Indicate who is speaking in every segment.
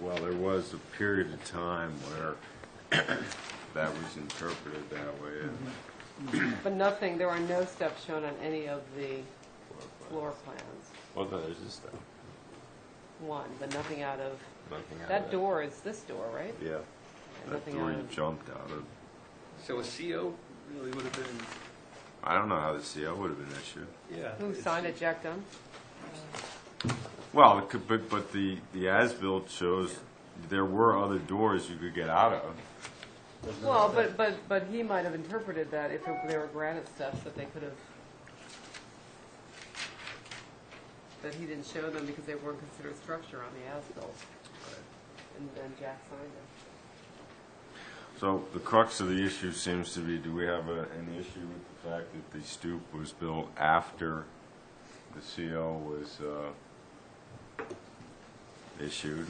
Speaker 1: Well, there was a period of time where that was interpreted that way, and
Speaker 2: But nothing, there are no steps shown on any of the floor plans.
Speaker 3: Well, no, there's this stuff.
Speaker 2: One, but nothing out of,
Speaker 3: Nothing out of
Speaker 2: that
Speaker 3: it.
Speaker 2: door is this door, right?
Speaker 1: yeah, that
Speaker 2: Nothing
Speaker 1: door
Speaker 2: out
Speaker 1: you
Speaker 2: of-
Speaker 1: jumped out of.
Speaker 4: So a CO really would have been,
Speaker 1: I don't know how the CO would have been issued.
Speaker 4: yeah.
Speaker 2: Who
Speaker 4: it's-
Speaker 2: signed it, Jack Dunn?
Speaker 1: Well, it could, but, but the, the as-built shows there were other doors you could get out of.
Speaker 2: Well, but, but, but he might have interpreted that if it- there were granite steps that they could have, that he didn't show them because they weren't considered structure on the as-built. And then Jack signed it.
Speaker 1: So the crux of the issue seems to be, do we have a, an issue with the fact that the stoop was built after the CO was, uh, issued?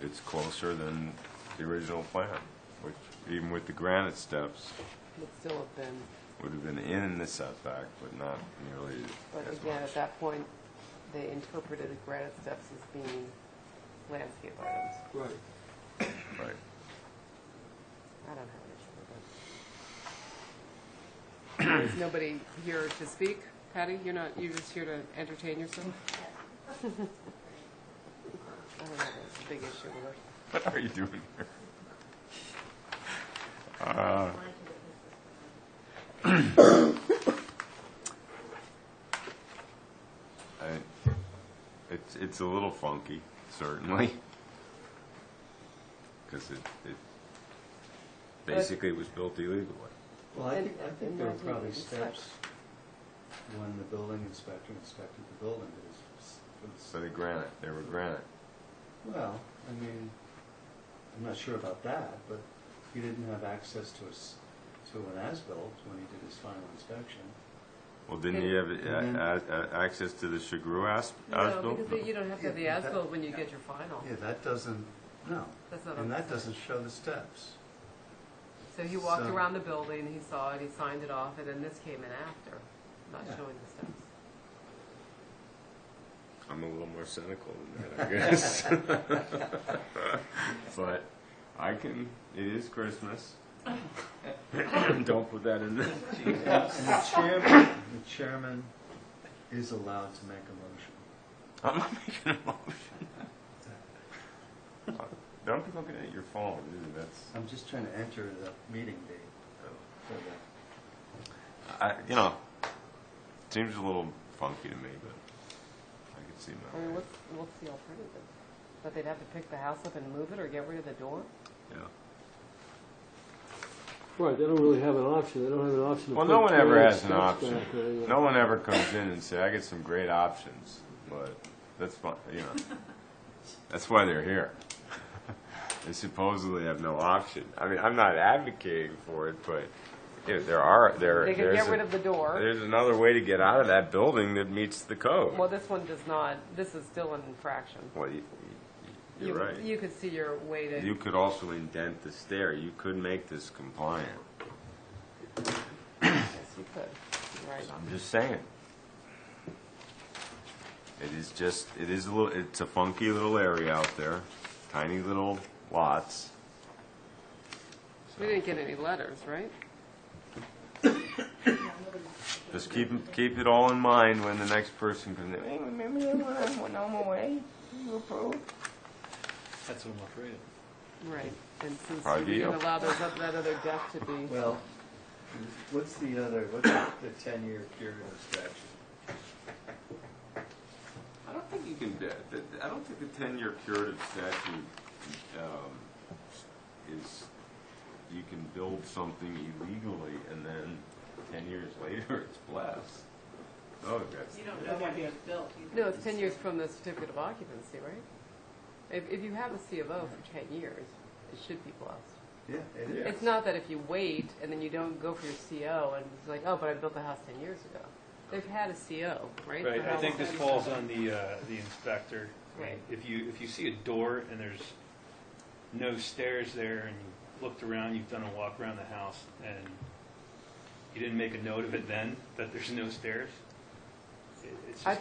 Speaker 1: It's closer than the original plan, which even with the granite steps
Speaker 2: Would still have been,
Speaker 1: would have been in the setback, but not nearly
Speaker 2: but
Speaker 1: as
Speaker 2: again, at
Speaker 1: much.
Speaker 2: that point, they interpreted the granite steps as being landscape items.
Speaker 4: Right.
Speaker 1: Right.
Speaker 2: I don't have an issue with it. Is nobody here to speak? Patty, you're not, you're just here to entertain yourself? I don't have a big issue with it.
Speaker 1: What are you doing here? Uh, I, it's, it's a little funky, certainly. Because it, it basically was built illegally.
Speaker 5: Well, I
Speaker 2: And-
Speaker 5: think, I think
Speaker 2: and
Speaker 5: there were
Speaker 2: not
Speaker 5: probably
Speaker 2: even steps.
Speaker 5: steps when the building inspector inspected the building. It was- it was-
Speaker 1: So they granite, they were granite.
Speaker 5: Well, I mean, I'm not sure about that, but he didn't have access to a s to an as-built when he did his final inspection.
Speaker 1: Well, didn't you have uh,
Speaker 5: Mhm.
Speaker 1: a- a- a- access to the Chagru as-
Speaker 2: No,
Speaker 1: as-built?
Speaker 2: because you don't have to have the
Speaker 5: Yeah,
Speaker 2: as-built when you
Speaker 5: yeah.
Speaker 2: get your final.
Speaker 5: Yeah, that doesn't, no.
Speaker 2: That's not
Speaker 5: And
Speaker 2: on-
Speaker 5: that doesn't show the steps.
Speaker 2: So he walked
Speaker 5: so-
Speaker 2: around the building, he saw it, he signed it off, and then this came in after, not
Speaker 5: Yeah.
Speaker 2: showing the steps.
Speaker 1: I'm a little more cynical than that, I guess. but I can. It is Christmas. Don't put that in there.
Speaker 5: And the chairman, the chairman is allowed to make a motion.
Speaker 1: I'm not making a motion. Don't be looking at your phone. dude, That's
Speaker 5: I'm just trying to enter the meeting date for the,
Speaker 1: I, you know. Seems a little funky to me, but I can see
Speaker 2: I
Speaker 1: my.
Speaker 2: mean, what's, what's the alternative? That they'd have to pick the house up and move it or get rid of the door?
Speaker 1: Yeah.
Speaker 6: Right, they don't really have an option, they don't have an option to
Speaker 1: Well,
Speaker 6: put...
Speaker 1: no one ever
Speaker 6: granite
Speaker 1: has an
Speaker 6: steps
Speaker 1: option.
Speaker 6: back or anything.
Speaker 1: No one ever comes in and say, "I get some great options," but that's fine. You know, that's why they're here. they supposedly have no option. I mean, I'm not advocating for it, but you know, there are there.
Speaker 2: They could
Speaker 1: there's
Speaker 2: get
Speaker 1: a-
Speaker 2: rid of the door.
Speaker 1: There's another way to get out of that building that meets the code.
Speaker 2: Well, this one does not, this is still an infraction.
Speaker 1: Well, you, you, you're
Speaker 2: You-
Speaker 1: right.
Speaker 2: You could see your way to.
Speaker 1: You could also indent the stair. You could make this compliant.
Speaker 2: Yes, you could, You're right.
Speaker 1: I'm just saying. It is just, it is a little, it's a funky little area out there, tiny little lots.
Speaker 2: We didn't get any letters, right?
Speaker 1: Just keep, keep it all in mind when the next person comes in. Hey, remember that one on Winoma Way? You approved?
Speaker 4: That's what I'm afraid of.
Speaker 2: Right. And since
Speaker 1: Are
Speaker 2: we didn't
Speaker 1: you?
Speaker 2: allow those, oth- that other deck to be,
Speaker 5: well, what's the other, what's the ten-year period of statute?
Speaker 1: I don't think you can, uh, th- I don't think the ten-year curative statute, um, is, you can build something illegally and then ten years later it's blessed. Oh, that's.
Speaker 7: You don't know when it was built. either.
Speaker 2: no, it's 10 years from the certificate of occupancy, right? If, if you have a C of O for 10 years, it should be blessed.
Speaker 5: Yeah, it is.
Speaker 2: It's not that if you wait and then you don't go for your CO and it's like, oh, but I built the house 10 years ago. They've had a CO, right?
Speaker 4: Right,
Speaker 2: for
Speaker 4: I
Speaker 2: how
Speaker 4: think
Speaker 2: long?
Speaker 4: this falls on the, uh, the inspector.
Speaker 2: Right.
Speaker 4: If you, if you see a door and there's no stairs there and you looked around, you've done a walk around the house and you didn't make a note of it then, that there's no stairs, it- it's
Speaker 2: I
Speaker 4: just